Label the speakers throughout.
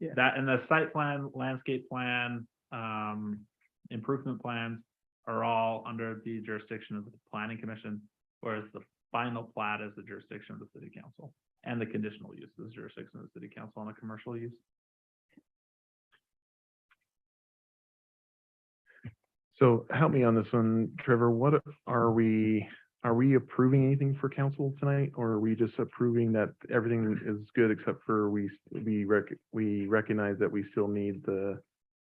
Speaker 1: Yeah.
Speaker 2: That and the site plan, landscape plan, um, improvement plans are all under the jurisdiction of the planning commission. Whereas the final plat is the jurisdiction of the city council and the conditional use is the jurisdiction of the city council on a commercial use.
Speaker 3: So help me on this one, Trevor. What are we, are we approving anything for council tonight? Or are we just approving that everything is good except for we, we rec, we recognize that we still need the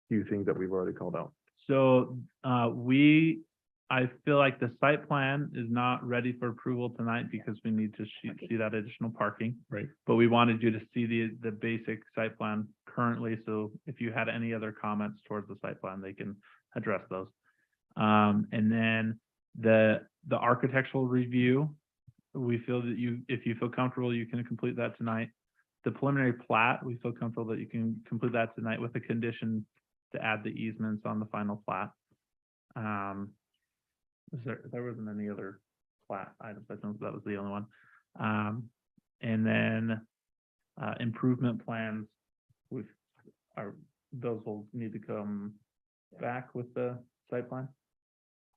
Speaker 3: few things that we've already called out?
Speaker 2: So, uh, we, I feel like the site plan is not ready for approval tonight because we need to see,
Speaker 1: Okay.
Speaker 2: see that additional parking.
Speaker 3: Right.
Speaker 2: But we wanted you to see the, the basic site plan currently, so if you had any other comments towards the site plan, they can address those. Um, and then the, the architectural review, we feel that you, if you feel comfortable, you can complete that tonight. The preliminary plat, we feel comfortable that you can complete that tonight with a condition to add the easements on the final plat. Um, was there, there wasn't any other plat items, I think that was the only one. Um, and then, uh, improvement plans, we've, are, those will need to come back with the site plan?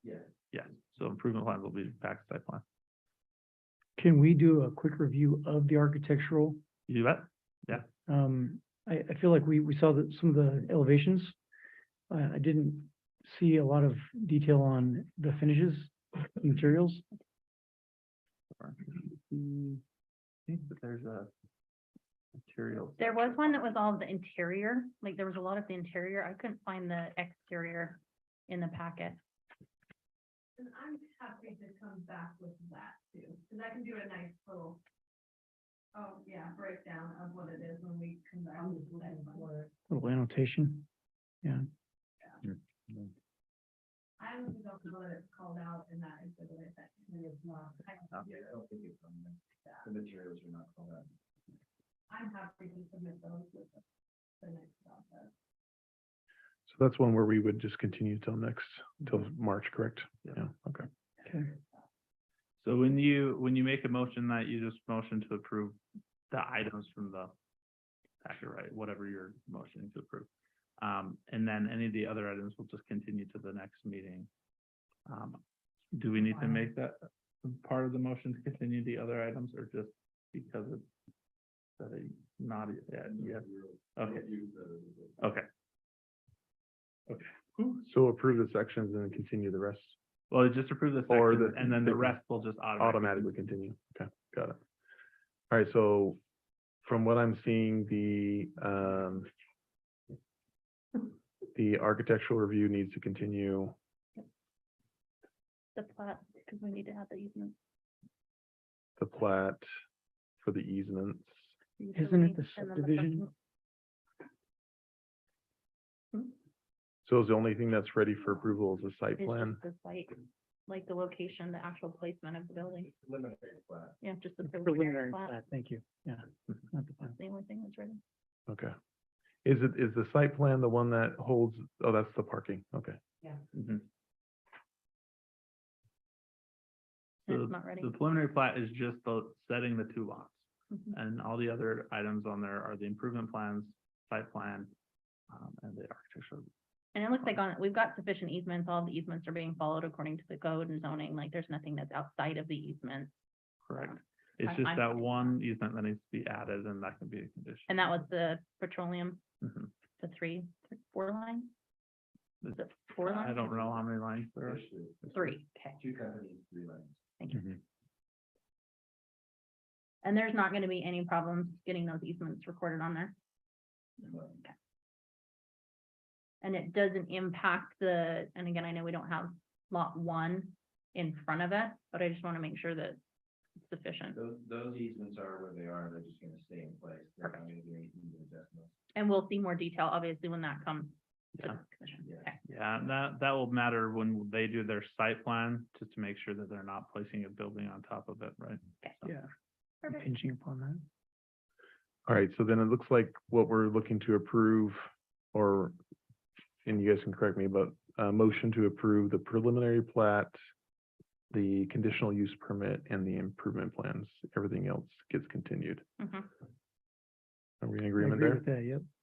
Speaker 4: Yeah.
Speaker 2: Yeah, so improvement plans will be back to site plan.
Speaker 1: Can we do a quick review of the architectural?
Speaker 2: You bet?
Speaker 1: Um, I, I feel like we, we saw that some of the elevations. Uh, I didn't see a lot of detail on the finishes, materials.
Speaker 2: Or- Mm, I think that there's a material.
Speaker 5: There was one that was all the interior, like there was a lot of the interior. I couldn't find the exterior in the packet.
Speaker 6: And I'm happy to come back with that too, because I can do a nice little, oh, yeah, breakdown of what it is when we come back. with the next one.
Speaker 1: Little annotation.
Speaker 6: I don't think that's what it's called out in that exhibit, if that is not.
Speaker 4: Yeah, I don't think it's on there. The materials are not called out.
Speaker 6: I'm happy to submit those with the, the next process.
Speaker 3: So that's one where we would just continue till next, till March, correct?
Speaker 2: Yeah.
Speaker 3: okay.
Speaker 1: Okay.
Speaker 2: So when you, when you make a motion that you just motion to approve the items from the packet, right, whatever you're motioning to approve. Um, and then any of the other items will just continue to the next meeting. Um, do we need to make that part of the motion to continue the other items or just because it's that it not, yeah, yeah, okay, okay. Okay, Whew.
Speaker 3: So approve the sections and then continue the rest,
Speaker 2: well, just approve the
Speaker 3: Or
Speaker 2: section
Speaker 3: the-
Speaker 2: and then the rest will just automatically.
Speaker 3: automatically continue. Okay, got it. All right, so from what I'm seeing, the, um, the architectural review needs to continue.
Speaker 5: The plat, because we need to have the easement.
Speaker 3: the plat for the easements.
Speaker 5: the
Speaker 1: Isn't it
Speaker 5: utilities,
Speaker 1: the
Speaker 5: and then
Speaker 1: subdivision?
Speaker 3: So is the only thing that's ready for approval is the site
Speaker 5: It's
Speaker 3: plan?
Speaker 5: just the site, like the location, the actual placement of the building.
Speaker 4: Eliminate flat.
Speaker 5: Yeah, just the
Speaker 1: The preliminary
Speaker 5: preliminary plat.
Speaker 1: plat, thank you. Yeah. not the
Speaker 5: That's
Speaker 1: final.
Speaker 5: the only thing that's written.
Speaker 3: Okay. Is it, is the site plan the one that holds, oh, that's the parking, okay.
Speaker 2: Mhm.
Speaker 5: and
Speaker 2: So
Speaker 5: It's not ready.
Speaker 2: The preliminary plat is just the setting the two lots.
Speaker 5: Mhm.
Speaker 2: And all the other items on there are the improvement plans, site plan, um, and the architecture.
Speaker 5: And it looks like on, we've got sufficient easements. All the easements are being followed according to the code and zoning. Like there's nothing that's outside of the easement.
Speaker 2: correct? It's
Speaker 5: I-
Speaker 2: just
Speaker 5: I'm
Speaker 2: that
Speaker 5: fine with
Speaker 2: one easement that needs to be added and that can be a condition.
Speaker 5: And that was the petroleum,
Speaker 2: Mhm.
Speaker 5: the three, four line? Was it four
Speaker 2: I
Speaker 5: line?
Speaker 2: don't know how many lines there are.
Speaker 4: Actually, it's
Speaker 5: Three, okay.
Speaker 4: Two companies, three lines.
Speaker 5: And there's not gonna be any problems getting those easements recorded on there? And it doesn't impact the, and again, I know we don't have lot one in front of it, but I just wanna make sure that it's sufficient.
Speaker 4: Those, those easements are where they are, they're just gonna stay in place. They're not gonna do anything to adjust them.
Speaker 5: And we'll see more detail, obviously, when that comes to the
Speaker 2: Yeah.
Speaker 5: commission.
Speaker 4: Yeah.
Speaker 5: Okay.
Speaker 2: Yeah, and that, that will matter when they do their site plan, just to make sure that they're not placing a building on top of it, right?
Speaker 1: Yeah.
Speaker 5: Perfect.
Speaker 1: Pinching upon that.
Speaker 3: All right, so then it looks like what we're looking to approve, or, and you guys can correct me, but a motion to approve the preliminary plat, the conditional use permit and the improvement plans, everything else gets continued.
Speaker 5: Mhm.
Speaker 3: Are we in
Speaker 1: I
Speaker 3: agreement
Speaker 1: agree
Speaker 3: there?
Speaker 1: with that, Yep.